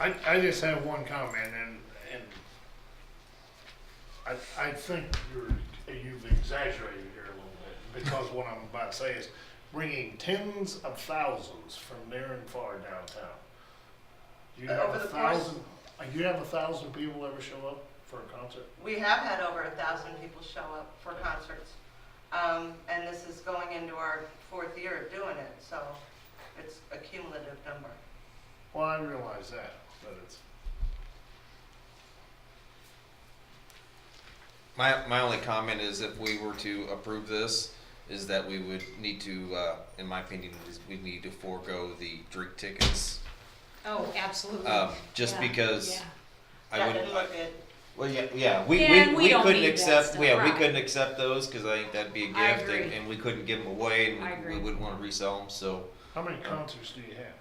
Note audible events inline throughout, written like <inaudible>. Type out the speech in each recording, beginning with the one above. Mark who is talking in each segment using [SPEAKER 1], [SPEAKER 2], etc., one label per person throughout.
[SPEAKER 1] I, I just have one comment and, and I, I think you're, you've exaggerated here a little bit because what I'm about to say is bringing tens of thousands from near and far downtown. You
[SPEAKER 2] Uh,
[SPEAKER 1] have
[SPEAKER 2] over
[SPEAKER 1] a
[SPEAKER 2] the course-
[SPEAKER 1] thousand, uh, you have a thousand people ever show up for a concert?
[SPEAKER 2] We have had over a thousand people show up for concerts. Um, and this is going into our fourth year of doing it, so it's a cumulative number.
[SPEAKER 1] Well, I realize that, but it's,
[SPEAKER 3] My, my only comment is if we were to approve this, is that we would need to, uh, in my opinion, is we need to forego the drink tickets.
[SPEAKER 4] Oh, absolutely.
[SPEAKER 3] Um, just
[SPEAKER 4] Yeah,
[SPEAKER 3] because
[SPEAKER 4] yeah.
[SPEAKER 3] I
[SPEAKER 2] That
[SPEAKER 3] would,
[SPEAKER 2] didn't look good.
[SPEAKER 3] well, yeah, yeah, we,
[SPEAKER 4] Yeah,
[SPEAKER 3] we,
[SPEAKER 4] we
[SPEAKER 3] we
[SPEAKER 4] don't
[SPEAKER 3] couldn't
[SPEAKER 4] need that
[SPEAKER 3] accept,
[SPEAKER 4] stuff,
[SPEAKER 3] yeah, we
[SPEAKER 4] right.
[SPEAKER 3] couldn't accept those, cause I think that'd be a gift.
[SPEAKER 4] I
[SPEAKER 3] and-
[SPEAKER 4] agree.
[SPEAKER 3] And we couldn't give them away
[SPEAKER 4] I
[SPEAKER 3] and we-
[SPEAKER 4] agree.
[SPEAKER 3] we wouldn't wanna resell them, so,
[SPEAKER 1] how many concerts do you have?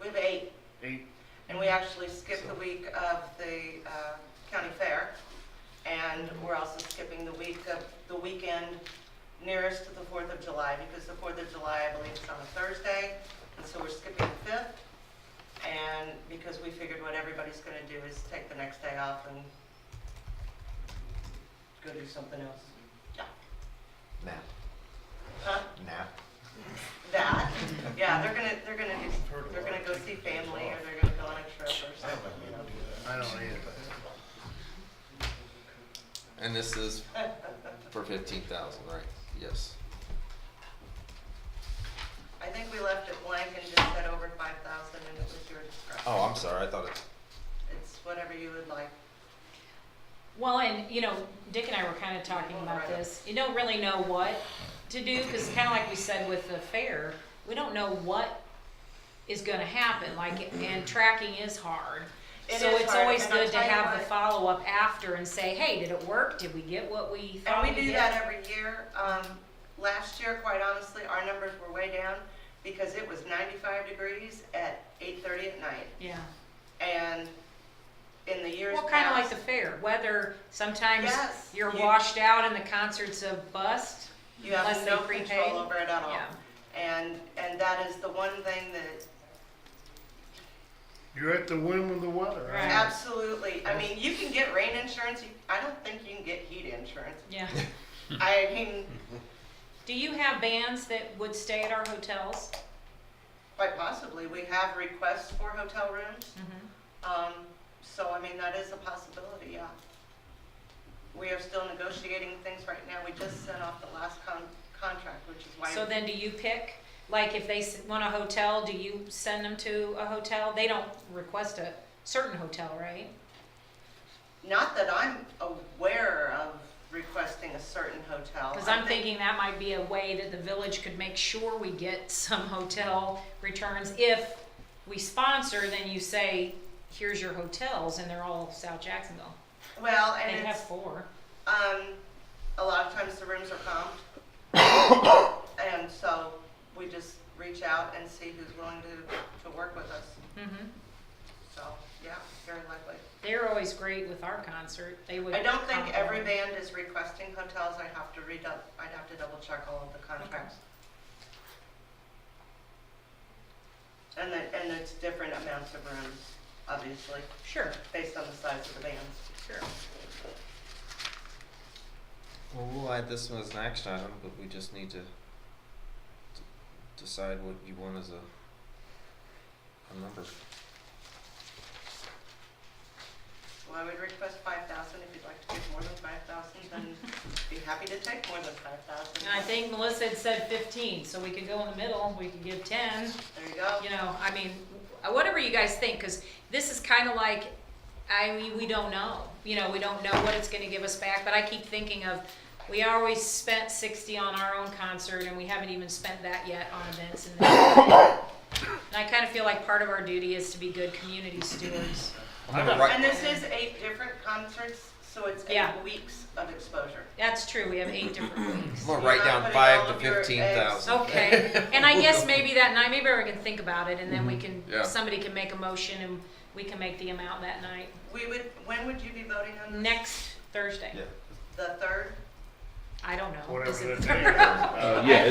[SPEAKER 2] We have eight,
[SPEAKER 1] Eight?
[SPEAKER 2] and we actually skipped the week of the, uh, county fair. And we're also skipping the week of, the weekend nearest to the Fourth of July, because the Fourth of July, I believe, is on a Thursday. And so we're skipping the fifth. And because we figured what everybody's gonna do is take the next day off and go do something else.
[SPEAKER 3] nah,
[SPEAKER 2] Huh?
[SPEAKER 3] nah.
[SPEAKER 2] That, yeah, they're gonna, they're gonna do,
[SPEAKER 1] Heard a
[SPEAKER 2] they're
[SPEAKER 1] lot
[SPEAKER 2] gonna
[SPEAKER 1] of
[SPEAKER 2] go see family, or they're gonna go on a trip or something, you know.
[SPEAKER 1] I don't either.
[SPEAKER 3] And this <laughs> is for fifteen thousand, right? Yes.
[SPEAKER 2] I think we left it blank and just said over five thousand and it was your discretion.
[SPEAKER 3] Oh, I'm sorry, I thought it's,
[SPEAKER 2] It's whatever you would like.
[SPEAKER 4] Well, and you know, Dick and I were kind of talking about this. You don't really know what to do because, kind of like we said with the fair, we don't know what is going to happen. Like, and tracking is hard.
[SPEAKER 2] It
[SPEAKER 4] so
[SPEAKER 2] is
[SPEAKER 4] it's
[SPEAKER 2] hard,
[SPEAKER 4] always
[SPEAKER 2] and I'll
[SPEAKER 4] good to
[SPEAKER 2] tell you
[SPEAKER 4] have the
[SPEAKER 2] what.
[SPEAKER 4] follow up after and say, hey, did it work? Did we get what we thought?
[SPEAKER 2] And we do
[SPEAKER 4] did?
[SPEAKER 2] that every year. Um, last year, quite honestly, our numbers were way down because it was ninety-five degrees at eight-thirty at night.
[SPEAKER 4] Yeah.
[SPEAKER 2] And in the years
[SPEAKER 4] Well,
[SPEAKER 2] past.
[SPEAKER 4] kind of like the fair. Whether sometimes
[SPEAKER 2] Yes,
[SPEAKER 4] you're
[SPEAKER 2] you-
[SPEAKER 4] washed out and the concerts a bust.
[SPEAKER 2] You have
[SPEAKER 4] unless they
[SPEAKER 2] no
[SPEAKER 4] prepaid.
[SPEAKER 2] control over it at all.
[SPEAKER 4] Yeah.
[SPEAKER 2] And, and that is the one thing that
[SPEAKER 1] You're at the whim of the weather.
[SPEAKER 4] Right.
[SPEAKER 2] Absolutely. I mean, you can get rain insurance. You- I don't think you can get heat insurance.
[SPEAKER 4] Yeah.
[SPEAKER 3] Hmm.
[SPEAKER 2] I mean,
[SPEAKER 4] Do you have bands that would stay at our hotels?
[SPEAKER 2] quite possibly. We have requests for hotel rooms. Um, so, I mean, that is a possibility, yeah. We are still negotiating things right now. We just sent off the last con- contract, which is why.
[SPEAKER 4] So then do you pick, like if they s- want a hotel, do you send them to a hotel? They don't request a certain hotel, right?
[SPEAKER 2] Not that I'm aware of requesting a certain hotel.
[SPEAKER 4] Because I'm
[SPEAKER 2] Oh, I think-
[SPEAKER 4] thinking that might be a way that the village could make sure we get some hotel returns. If we sponsor, then you say, here's your hotels, and they're all South Jacksonville.
[SPEAKER 2] Well,
[SPEAKER 4] They
[SPEAKER 2] and
[SPEAKER 4] have
[SPEAKER 2] it's,
[SPEAKER 4] four.
[SPEAKER 2] um, a lot of times the rooms are comped. And so we just reach out and see who's willing to, to work with us.
[SPEAKER 4] Mhm.
[SPEAKER 2] So, yeah, very likely.
[SPEAKER 4] They're always great with our concert. They would.
[SPEAKER 2] I don't think every
[SPEAKER 4] compliment.
[SPEAKER 2] band is requesting hotels. I have to read up, I'd have to double check all of the contracts. And then, and it's different amounts of rooms, obviously,
[SPEAKER 4] Sure,
[SPEAKER 2] based on the size of the bands.
[SPEAKER 4] sure.
[SPEAKER 3] well, we'll add this one as an action item, but we just need to d- decide what you want as a, a number.
[SPEAKER 2] Well, I would request five thousand. If you'd like to give more than five thousand, then be happy to take more than five thousand.
[SPEAKER 4] And I think Melissa had said fifteen, so we could go in the middle, we could give ten,
[SPEAKER 2] There you go.
[SPEAKER 4] you know, I mean, whatever you guys think, cause this is kinda like, I mean, we don't know. You know, we don't know what it's gonna give us back, but I keep thinking of, we always spent sixty on our own concert and we haven't even spent that yet on events and. And I kinda feel like part of our duty is to be good community stewards.
[SPEAKER 3] I'm gonna write,
[SPEAKER 2] And this is eight different concerts, so it's eight
[SPEAKER 4] Yeah.
[SPEAKER 2] weeks of exposure.
[SPEAKER 4] That's true, we have eight different weeks.
[SPEAKER 3] I'm gonna
[SPEAKER 2] You're
[SPEAKER 3] write
[SPEAKER 2] not
[SPEAKER 3] down
[SPEAKER 2] putting
[SPEAKER 3] five
[SPEAKER 2] all
[SPEAKER 3] to
[SPEAKER 2] of your eggs-
[SPEAKER 3] fifteen thousand.
[SPEAKER 4] Okay,
[SPEAKER 3] <laughs>
[SPEAKER 4] and I guess maybe that night, maybe we can think about it, and then we can,
[SPEAKER 3] Yeah.
[SPEAKER 4] somebody can make a motion, and we can make the amount that night,
[SPEAKER 2] We would, when would you be voting on this?
[SPEAKER 4] next Thursday.
[SPEAKER 3] Yeah.
[SPEAKER 2] The third?
[SPEAKER 4] I don't know.
[SPEAKER 1] Whatever
[SPEAKER 4] Is it
[SPEAKER 1] the
[SPEAKER 4] the
[SPEAKER 1] day
[SPEAKER 4] <laughs> third?
[SPEAKER 1] is.
[SPEAKER 5] Uh, yeah,